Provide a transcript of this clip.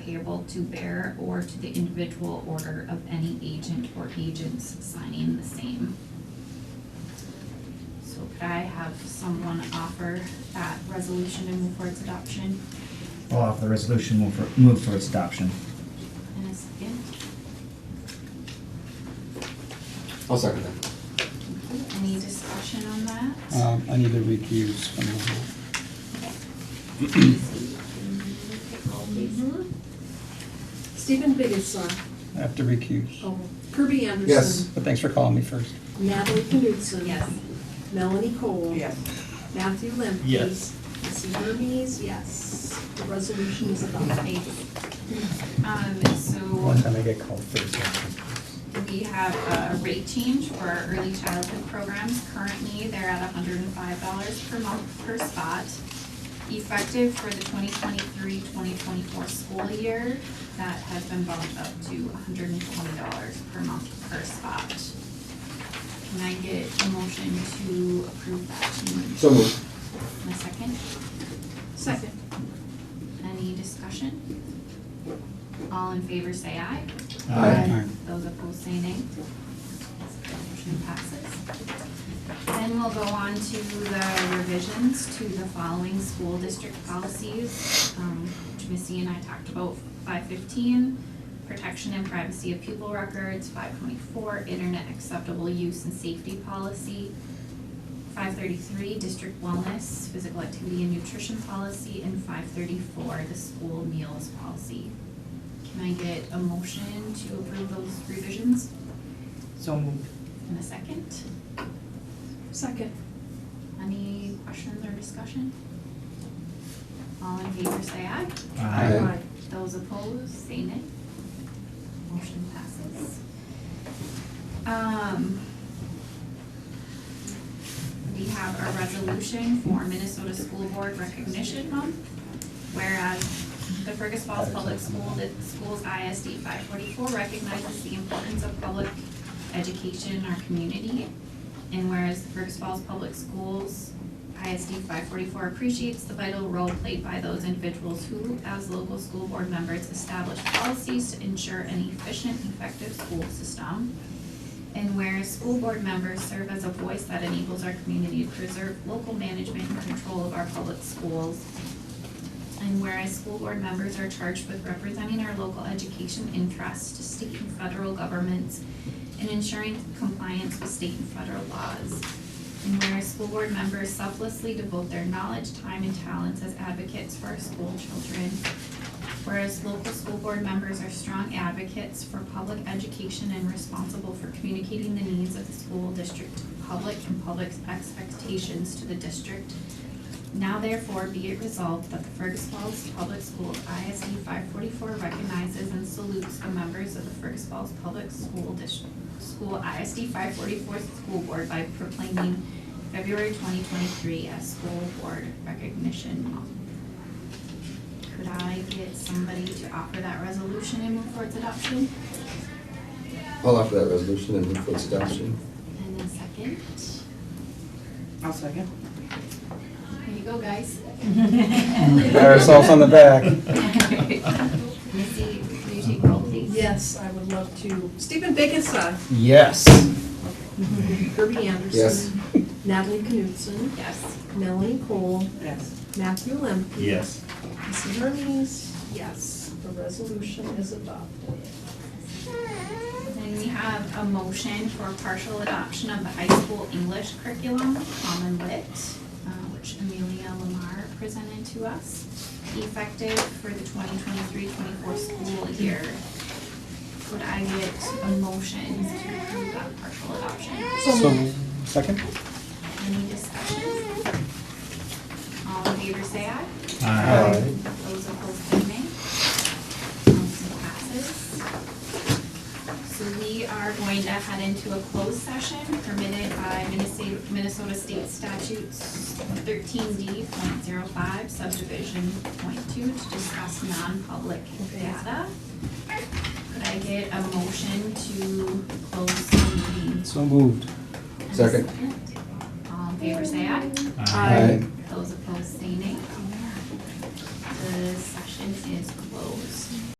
payable to bearer or to the individual order of any agent or agents signing the same. So could I have someone offer that resolution and move for its adoption I'll offer the resolution, move for, move for its adoption. in a second? I'll second that. Thank you. Any discussion on that? Um, I need to recuse from the, Mm-hmm. Stephen Biggessa, I have to recuse. oh, Kirby Yes. Anderson, But thanks for calling me first. Natalie Knudsen. Yes. Melanie Cole. Yes. Matthew Limkey. Yes. Missy Hermes, yes. The resolution is adopted. Thank you. Um, so One time I get called first. we have a rate change for our early childhood programs. Currently, they're at hundred and five dollars per month per spot. Effective for the 2023-2024 school year, that has been bumped up to hundred and twenty dollars per month per spot. Can I get a motion to approve that change? So moved. And a second? Second. Any discussion? All in favor say aye. Aye. Those opposed say nay. Motion passes. Then we'll go on to the revisions to the following school district policies, um, which Missy and I talked about. Five fifteen, protection and privacy of pupil records. Five twenty-four, internet acceptable use and safety policy. Five thirty-three, district wellness, physical activity and nutrition policy. And five thirty-four, the school meals policy. Can I get a motion to approve those revisions So moved. in a second? Second. Any questions or discussion? All in favor say aye. Aye. Aye. Those opposed, say nay. Motion passes. Um, we have a resolution for Minnesota School Board Recognition Month. Whereas the Fergus Falls Public School, the school's ISD five forty-four recognizes the importance of public education in our community. And whereas the Fergus Falls Public Schools ISD five forty-four appreciates the vital role played by those individuals who, as local school board members, establish policies to ensure an efficient, effective school system. And whereas school board members serve as a voice that enables our community to preserve local management and control of our public schools. And whereas school board members are charged with representing our local education interests to state and federal governments and ensuring compliance with state and federal laws. And whereas school board members selflessly devote their knowledge, time, and talents as advocates for our school children. Whereas local school board members are strong advocates for public education and responsible for communicating the needs of the school district, to the public, and public's expectations to the district. Now therefore be it resolved that the Fergus Falls Public Schools ISD E five forty-four recognizes and salutes the members of the Fergus Falls Public School District, School ISD five forty-four School Board by proclaiming February twenty twenty-three as School Board Recognition Month. Could I get somebody to offer that resolution and move for its adoption? I'll offer that resolution and move for its adoption. And a second. I'll second. There you go, guys. Pat ourselves on the back. Uh, Missy, could you take roll, please? Yes, I would love to. Stephen Biggessa, Yes. Kirby Anderson. Yes. Natalie Knudsen, Yes. Melanie Cole, Yes. Matthew Limkey. Yes. Missy Hermes, yes. The resolution is adopted. Then we have a motion for partial adoption of the high school English curriculum, Common Lit, uh, which Amelia Lamar presented to us, effective for the 2023-24 school year. Would I get a motion to approve that partial adoption? So, second? Any discussion? All in favor, say aye. Aye. Those opposed, say nay. Motion passes. So we are going to head into a closed session permitted by Minnesota Minnesota State Statutes thirteen D point zero five subdivision point two to discuss non-public data. Could I get a motion to close the meeting? So moved. And a Second. All in favor, say aye. Aye. Those opposed, say nay. The session is closed.